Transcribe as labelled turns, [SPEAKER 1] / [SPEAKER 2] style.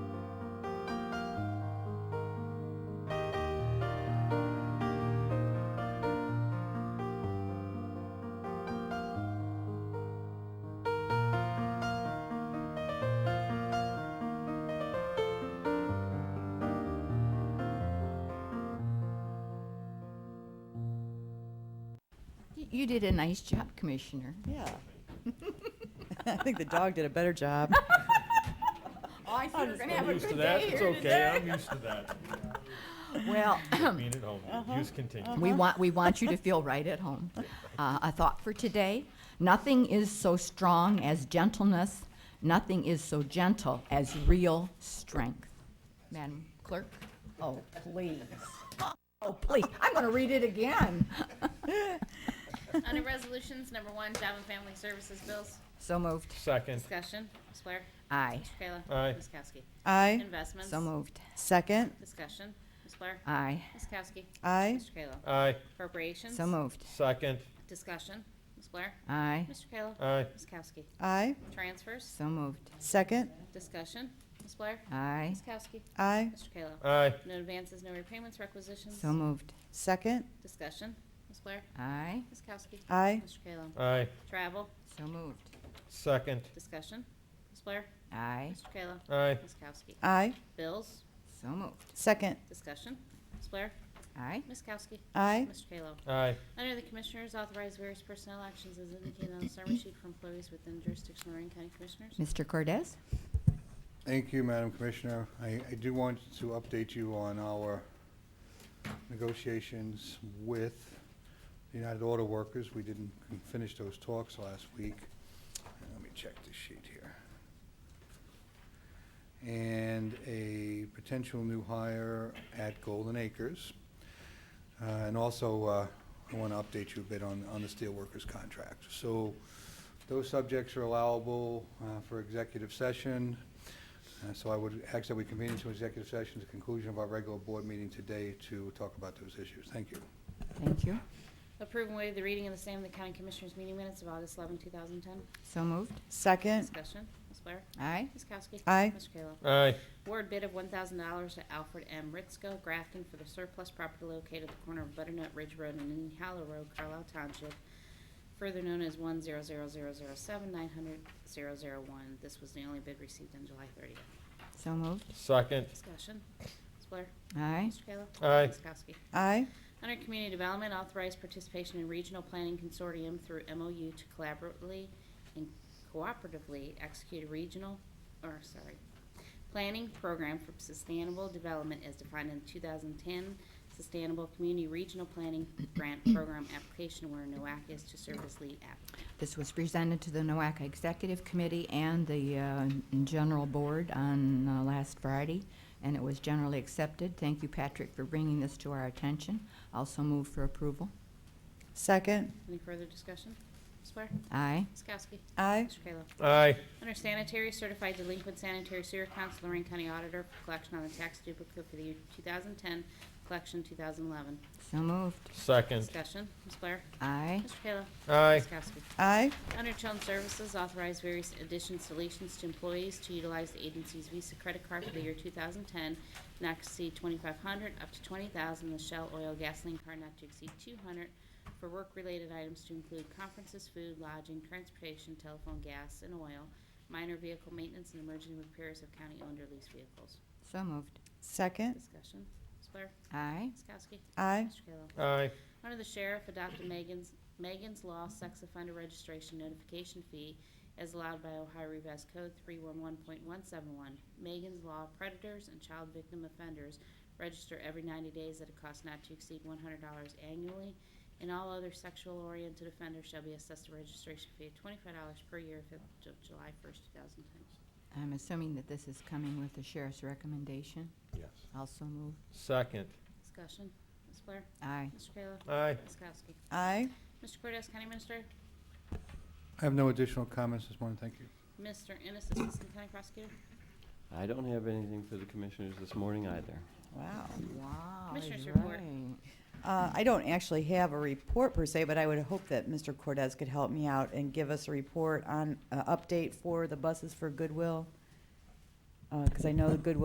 [SPEAKER 1] You did a nice job, Commissioner.
[SPEAKER 2] Yeah. I think the dog did a better job.
[SPEAKER 1] Oh, I see we're gonna have
[SPEAKER 3] I'm
[SPEAKER 1] a
[SPEAKER 3] used to
[SPEAKER 1] good
[SPEAKER 3] that.
[SPEAKER 1] day
[SPEAKER 3] It's
[SPEAKER 1] here
[SPEAKER 3] okay.
[SPEAKER 1] today.
[SPEAKER 3] I'm used to that.
[SPEAKER 1] Well,
[SPEAKER 3] Being at home,
[SPEAKER 1] Uh-huh.
[SPEAKER 3] use continue.
[SPEAKER 1] we want, we want you to feel right at home. Uh, a thought for today, nothing is so strong as gentleness, nothing is so gentle as real strength. Madam Clerk? Oh, please. Oh, please, I'm gonna read it again.
[SPEAKER 4] Under Resolutions Number One, Job and Family Services Bills.
[SPEAKER 1] So moved.
[SPEAKER 3] Second,
[SPEAKER 4] Discussion. Ms. Blair.
[SPEAKER 1] Aye.
[SPEAKER 4] Mr. Kayla.
[SPEAKER 3] Aye.
[SPEAKER 4] Ms. Kowski.
[SPEAKER 2] Aye.
[SPEAKER 4] Investments.
[SPEAKER 1] So moved.
[SPEAKER 2] Second.
[SPEAKER 4] Discussion. Ms. Blair.
[SPEAKER 1] Aye.
[SPEAKER 4] Ms. Kowski.
[SPEAKER 2] Aye.
[SPEAKER 4] Mr. Kayla.
[SPEAKER 3] aye.
[SPEAKER 4] Appropriations.
[SPEAKER 1] So moved.
[SPEAKER 3] Second,
[SPEAKER 4] Discussion. Ms. Blair.
[SPEAKER 1] Aye.
[SPEAKER 4] Mr. Kayla.
[SPEAKER 3] aye.
[SPEAKER 4] Ms. Kowski.
[SPEAKER 2] Aye.
[SPEAKER 4] Transfers.
[SPEAKER 1] So moved.
[SPEAKER 2] Second.
[SPEAKER 4] Discussion. Ms. Blair.
[SPEAKER 1] Aye.
[SPEAKER 4] Ms. Kowski.
[SPEAKER 2] Aye.
[SPEAKER 4] Mr. Kayla.
[SPEAKER 3] Aye.
[SPEAKER 4] No advances, no repayments, requisitions.
[SPEAKER 1] So moved.
[SPEAKER 2] Second.
[SPEAKER 4] Discussion. Ms. Blair.
[SPEAKER 1] Aye.
[SPEAKER 4] Ms. Kowski.
[SPEAKER 2] Aye.
[SPEAKER 4] Mr. Kayla.
[SPEAKER 3] Aye.
[SPEAKER 4] Travel.
[SPEAKER 1] So moved.
[SPEAKER 3] Second,
[SPEAKER 4] Discussion. Ms. Blair.
[SPEAKER 1] Aye.
[SPEAKER 4] Mr. Kayla.
[SPEAKER 3] aye.
[SPEAKER 4] Ms. Kowski.
[SPEAKER 2] Aye.
[SPEAKER 4] Bills.
[SPEAKER 1] So moved.
[SPEAKER 2] Second.
[SPEAKER 4] Discussion. Ms. Blair.
[SPEAKER 1] Aye.
[SPEAKER 4] Ms. Kowski.
[SPEAKER 2] Aye.
[SPEAKER 4] Mr. Kayla.
[SPEAKER 3] Aye.
[SPEAKER 4] Under the Commissioners, authorize various personnel actions as indicated on the summary sheet for employees within jurisdiction of Lorraine County Commissioners.
[SPEAKER 1] Mr. Cortez?
[SPEAKER 5] Thank you, Madam Commissioner. I, I do want to update you on our negotiations with the United Auto Workers. We didn't finish those talks last week. Let me check the sheet here. And a potential new hire at Golden Acres. Uh, And also, uh, I want to update you a bit on, on the steelworkers contract. So those subjects are allowable uh, for executive session. Uh, So I would ask that we convene into executive session at the conclusion of our regular board meeting today to talk about those issues. Thank you.
[SPEAKER 1] Thank you.
[SPEAKER 4] Approve and waive the reading of the same in the County Commissioners meeting minutes of August 11, 2010.
[SPEAKER 1] So moved.
[SPEAKER 2] Second.
[SPEAKER 4] Discussion. Ms. Blair.
[SPEAKER 1] Aye.
[SPEAKER 4] Ms. Kowski.
[SPEAKER 2] Uh, Aye.
[SPEAKER 4] Mr. Kayla.
[SPEAKER 3] Aye.
[SPEAKER 4] Award bid of $1,000 to Alfred M. Ritzko Grafton for the surplus property located at the corner of Butternut Ridge Road and Indian Hollow Road, Carlisle Township, further known as 100007900001. This was the only bid received on July 30th.
[SPEAKER 1] So moved.
[SPEAKER 3] Second,
[SPEAKER 4] Discussion. Ms. Blair.
[SPEAKER 1] Aye.
[SPEAKER 4] Mr. Kayla.
[SPEAKER 3] Aye.
[SPEAKER 4] Ms. Kowski.
[SPEAKER 2] Aye.
[SPEAKER 4] Under Community Development, authorize participation in Regional Planning Consortium through MOU to collaboratively and cooperatively execute a regional, or sorry, planning program for sustainable development as defined in 2010 Sustainable Community Regional Planning Grant Program application where NOAC is to serve as lead applicant.
[SPEAKER 1] This was presented to the NOAC Executive Committee and the uh, General Board on uh, last Friday, and it was generally accepted. Thank you, Patrick, for bringing this to our attention. Also move for approval.
[SPEAKER 2] Second.
[SPEAKER 4] Any further discussion? Ms. Blair?
[SPEAKER 1] Aye.
[SPEAKER 4] Ms. Kowski?
[SPEAKER 2] Aye.
[SPEAKER 4] Mr. Kayla?
[SPEAKER 3] aye.
[SPEAKER 4] Under sanitary, certified delinquent sanitary sewer accounts, Lorraine County Auditor for collection on the tax duplicate for the year 2010, collection 2011.
[SPEAKER 1] So moved.
[SPEAKER 3] Second,
[SPEAKER 4] Discussion, Ms. Blair.
[SPEAKER 1] Aye.
[SPEAKER 4] Mr. Kayla.
[SPEAKER 3] aye.
[SPEAKER 4] Ms. Kowski.
[SPEAKER 2] Aye.
[SPEAKER 4] Under Children's Services, authorize various additions, deletions to employees to utilize the agency's Visa credit card for the year 2010, not to exceed 2,500, up to 20,000, the Shell Oil Gasoline Card not to exceed 200, for work-related items to include conferences, food, lodging, transportation, telephone, gas, and oil, minor vehicle maintenance, and emergency repairs of county-owned or leased vehicles.
[SPEAKER 1] So moved.
[SPEAKER 2] Second.
[SPEAKER 4] Discussion, Ms. Blair.
[SPEAKER 1] Aye.
[SPEAKER 4] Ms. Kowski.
[SPEAKER 2] Aye.
[SPEAKER 4] Mr. Kayla.
[SPEAKER 3] Aye.
[SPEAKER 4] Under the sheriff, adopted Megan's, Megan's Law Sex Offender Registration Notification Fee as allowed by Ohio Revised Code 311.171. Megan's Law predators and child victim offenders register every 90 days at a cost not to exceed $100 annually, and all other sexual-oriented offenders shall be assessed a registration fee of $25 per year effective July 1st, 2010.
[SPEAKER 1] I'm assuming that this is coming with the sheriff's recommendation.
[SPEAKER 3] Yes.
[SPEAKER 1] Also move.
[SPEAKER 3] Second,
[SPEAKER 4] Discussion, Ms. Blair?
[SPEAKER 1] Aye.
[SPEAKER 4] Mr. Kayla?
[SPEAKER 3] aye.
[SPEAKER 4] Ms. Kowski?
[SPEAKER 2] Aye.
[SPEAKER 4] Mr. Cortez, County Minister?
[SPEAKER 5] I have no additional comments this morning. Thank you.
[SPEAKER 4] Mr. Ennis, Assistant County Prosecutor?
[SPEAKER 6] I don't have anything for the commissioners this morning either.
[SPEAKER 2] Wow.
[SPEAKER 1] Wow. he's
[SPEAKER 4] Commissioners report.
[SPEAKER 1] right.
[SPEAKER 2] Uh, I don't actually have a report per se, but I would hope that Mr. Cortez could help me out and give us a report on, uh, update for the buses for Goodwill. Uh 'cause cause I know the Goodwill